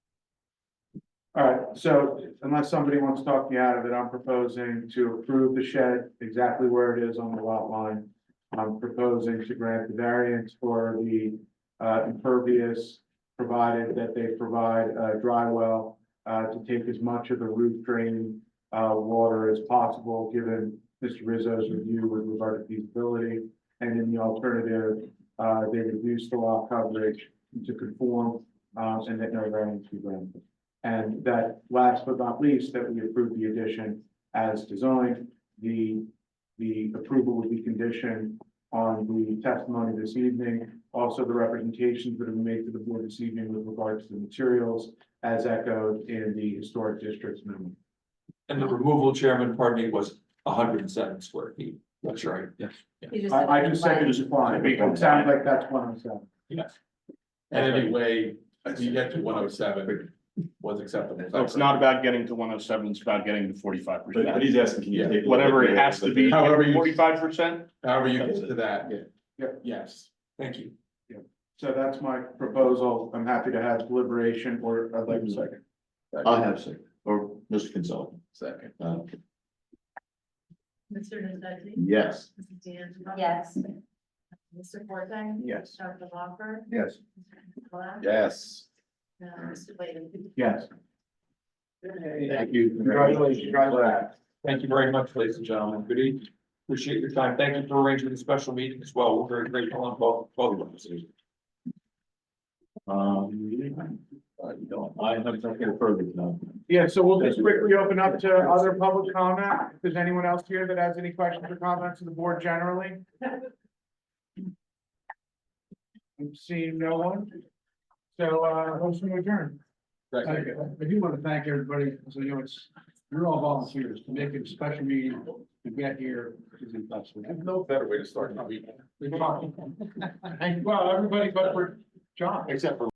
All right, so unless somebody wants to talk me out of it, I'm proposing to approve the shed exactly where it is on the lot line. I'm proposing to grant the variance for the uh, impervious, provided that they provide a dry well uh, to take as much of the roof drain uh, water as possible, given Mr. Rizzo's review with regard to feasibility. And in the alternative, uh, they reduce the lot coverage to conform uh, and that no variance be granted. And that last but not least, that we approve the addition as designed. The, the approval would be conditioned on the testimony this evening. Also, the representations that have been made to the board this evening with regard to the materials as echoed in the historic district's memo. And the removal chairman, pardon me, was hundred and seven square feet. That's right. Yes. You just I, I said just said it's fine. It sounds like that's one I'm saying. Yes. And anyway, you get to one oh seven was acceptable. Oh, So it's not about getting to one oh seven, it's about getting to forty-five But but percent. he's asking, can you take? Whatever it has to be, However you- forty-five percent? However you get to that. Yeah. Yeah. Yes, thank you. So that's my proposal. I'm happy to have deliberation or I'd like a second. I have second, or Mr. Consultant, Second. uh, Mr. Nuzzety? yes. Mrs. D'Angelo? Yes. Mr. Forte? Yes. Dr. Walker? Yes. Mr. Yes. Nicola? Uh, Mr. Layden? Yes. Thank you. Thank you very much, ladies and gentlemen. Good evening. Appreciate your time. Thank you for arranging the special meeting as well. We're very grateful on both, both of us. Um, uh, you don't- I have nothing further to know. Yeah, so we'll just quickly open up to other public comment. If there's anyone else here that has any questions or comments to the board generally? I'm seeing no one. So, uh, motion adjourned. Thank you. I do want to thank everybody, so you know, it's, you're all volunteers, to make it a special meeting, to get here is impossible. No better way to start the week. Thank- Well, everybody but for John. Except for